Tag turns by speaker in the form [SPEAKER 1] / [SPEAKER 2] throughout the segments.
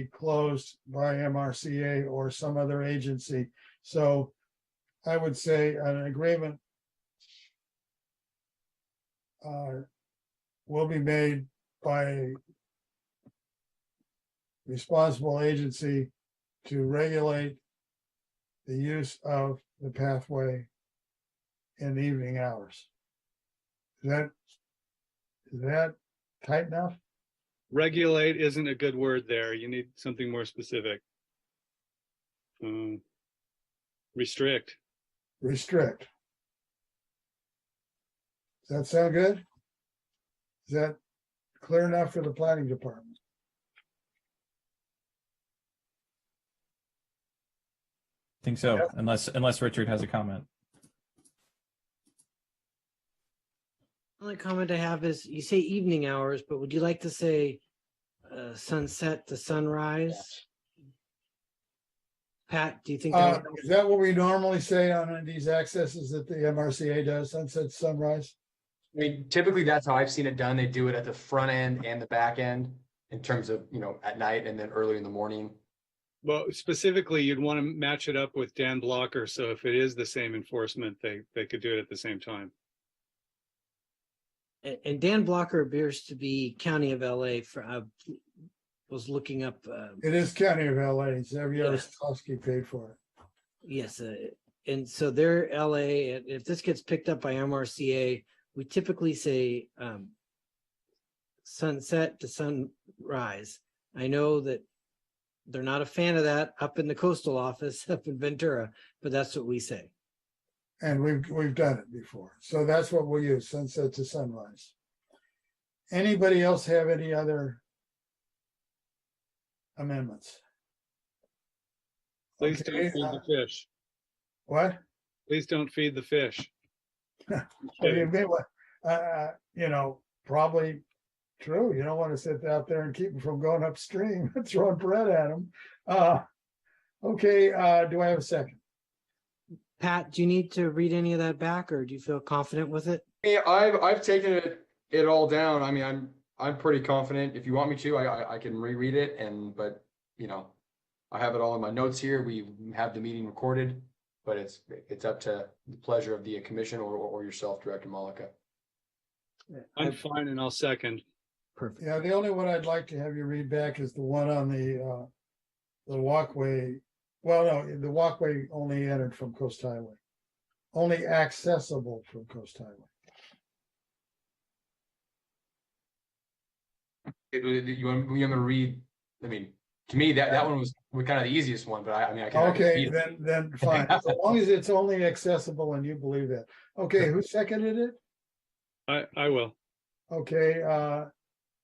[SPEAKER 1] be closed by MRCA or some other agency. So I would say an agreement uh, will be made by responsible agency to regulate the use of the pathway in the evening hours. Is that, is that tight enough?
[SPEAKER 2] Regulate isn't a good word there. You need something more specific. Um, Restrict.
[SPEAKER 1] Restrict. Does that sound good? Is that clear enough for the planning department?
[SPEAKER 3] Think so,
[SPEAKER 1] Yep.
[SPEAKER 3] unless unless Richard has a comment.
[SPEAKER 4] Only comment I have is you say evening hours, but would you like to say uh, sunset to sunrise? Pat, do you think?
[SPEAKER 1] Uh,
[SPEAKER 4] that
[SPEAKER 1] is
[SPEAKER 4] would-
[SPEAKER 1] that what we normally say on these accesses that the MRCA does, sunset, sunrise?
[SPEAKER 5] I mean, typically that's how I've seen it done. They do it at the front end and the back end in terms of, you know, at night and then early in the morning.
[SPEAKER 2] Well, specifically, you'd want to match it up with Dan Blocker. So if it is the same enforcement, they, they could do it at the same time.
[SPEAKER 4] And- And Dan Blocker appears to be County of LA for, uh, was looking up, uh,
[SPEAKER 1] It is County of LA, it's every other
[SPEAKER 4] Yeah.
[SPEAKER 1] Sikorsky paid for it.
[SPEAKER 4] yes, uh, and so they're LA, and if this gets picked up by MRCA, we typically say um, sunset to sunrise. I know that they're not a fan of that up in the coastal office up in Ventura, but that's what we say.
[SPEAKER 1] And we've, we've done it before. So that's what we'll use, sunset to sunrise. Anybody else have any other amendments?
[SPEAKER 2] Please don't
[SPEAKER 1] Okay,
[SPEAKER 2] feed
[SPEAKER 1] uh,
[SPEAKER 2] the fish.
[SPEAKER 1] What?
[SPEAKER 2] Please don't feed the fish.
[SPEAKER 1] I I
[SPEAKER 2] Kidding.
[SPEAKER 1] mean, they wa- uh, uh, you know, probably true. You don't want to sit out there and keep them from going upstream, throwing bread at them. Uh, okay, uh, do I have a second?
[SPEAKER 4] Pat, do you need to read any of that back or do you feel confident with it?
[SPEAKER 5] Yeah, I've, I've taken it, it all down. I mean, I'm, I'm pretty confident. If you want me to, I, I, I can reread it and, but, you know, I have it all in my notes here. We have the meeting recorded, but it's, it's up to the pleasure of the commission or, or yourself, Director Malika.
[SPEAKER 2] I'm fine and I'll second.
[SPEAKER 4] Perfect.
[SPEAKER 1] Yeah, the only one I'd like to have you read back is the one on the, uh, the walkway. Well, no, the walkway only entered from Coast Highway, only accessible from Coast Highway.
[SPEAKER 5] It- it- You want, you want me to read, I mean, to me, that, that one was, was kind of the easiest one, but I, I mean, I can. I can read
[SPEAKER 1] Okay,
[SPEAKER 5] it.
[SPEAKER 1] then, then fine. As long as it's only accessible and you believe that. Okay, who seconded it?
[SPEAKER 2] I, I will.
[SPEAKER 1] Okay, uh,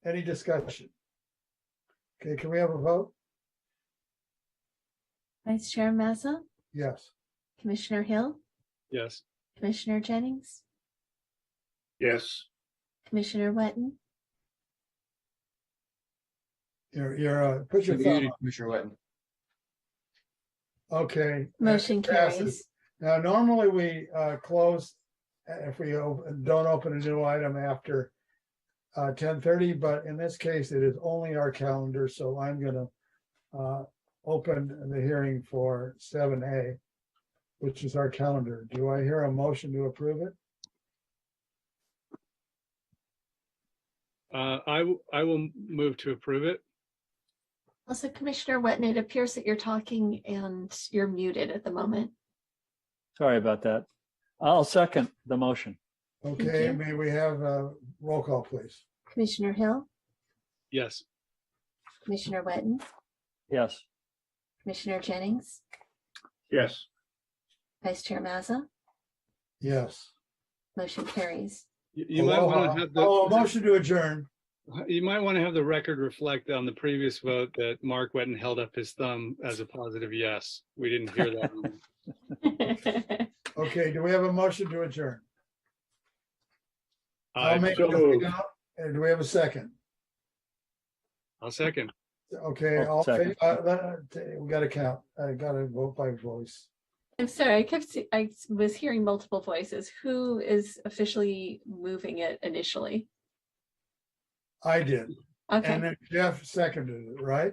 [SPEAKER 1] any discussion? Okay, can we have a vote?
[SPEAKER 6] Vice Chair Mazza,
[SPEAKER 1] Yes.
[SPEAKER 6] Commissioner Hill,
[SPEAKER 2] Yes.
[SPEAKER 6] Commissioner Jennings,
[SPEAKER 7] Yes,
[SPEAKER 6] Commissioner Wetton,
[SPEAKER 1] You're, you're, uh, put your
[SPEAKER 5] You're
[SPEAKER 1] thumb
[SPEAKER 5] muted,
[SPEAKER 1] up.
[SPEAKER 5] Commissioner Wetton.
[SPEAKER 1] Okay.
[SPEAKER 6] motion
[SPEAKER 1] it passes.
[SPEAKER 6] carries.
[SPEAKER 1] Now, normally we, uh, close, uh, if we o- don't open a new item after uh, ten thirty, but in this case, it is only our calendar, so I'm gonna uh, open the hearing for seven A, which is our calendar. Do I hear a motion to approve it?
[SPEAKER 2] Uh, I, w- I will move to approve it.
[SPEAKER 6] Also, Commissioner Wetton, it appears that you're talking and you're muted at the moment.
[SPEAKER 8] Sorry about that. I'll second the motion.
[SPEAKER 1] Okay,
[SPEAKER 6] you.
[SPEAKER 1] may we have a roll call, please?
[SPEAKER 6] Commissioner Hill,
[SPEAKER 2] Yes.
[SPEAKER 6] Commissioner Wetton,
[SPEAKER 8] Yes.
[SPEAKER 6] Commissioner Jennings,
[SPEAKER 7] yes.
[SPEAKER 6] Vice Chair Mazza,
[SPEAKER 1] Yes.
[SPEAKER 6] motion carries.
[SPEAKER 2] You- You might want
[SPEAKER 1] Aloha.
[SPEAKER 2] to have
[SPEAKER 1] Oh, a
[SPEAKER 2] the,
[SPEAKER 1] motion to adjourn.
[SPEAKER 2] you might want to have the record reflect on the previous vote that Mark Wetton held up his thumb as a positive yes. We didn't hear that. one.
[SPEAKER 1] Okay, do we have a motion to adjourn? I'll
[SPEAKER 2] I-
[SPEAKER 1] make,
[SPEAKER 7] so
[SPEAKER 1] do we
[SPEAKER 7] moved.
[SPEAKER 1] not- and do we have a second?
[SPEAKER 2] I'll second.
[SPEAKER 1] Okay,
[SPEAKER 8] Oh,
[SPEAKER 1] all, fa-
[SPEAKER 8] second.
[SPEAKER 1] uh, uh, we gotta count. I gotta vote by voice.
[SPEAKER 6] I'm sorry, I kept, see- I was hearing multiple voices. Who is officially moving it initially?
[SPEAKER 1] I did,
[SPEAKER 6] Okay.
[SPEAKER 1] and then Jeff seconded it, right?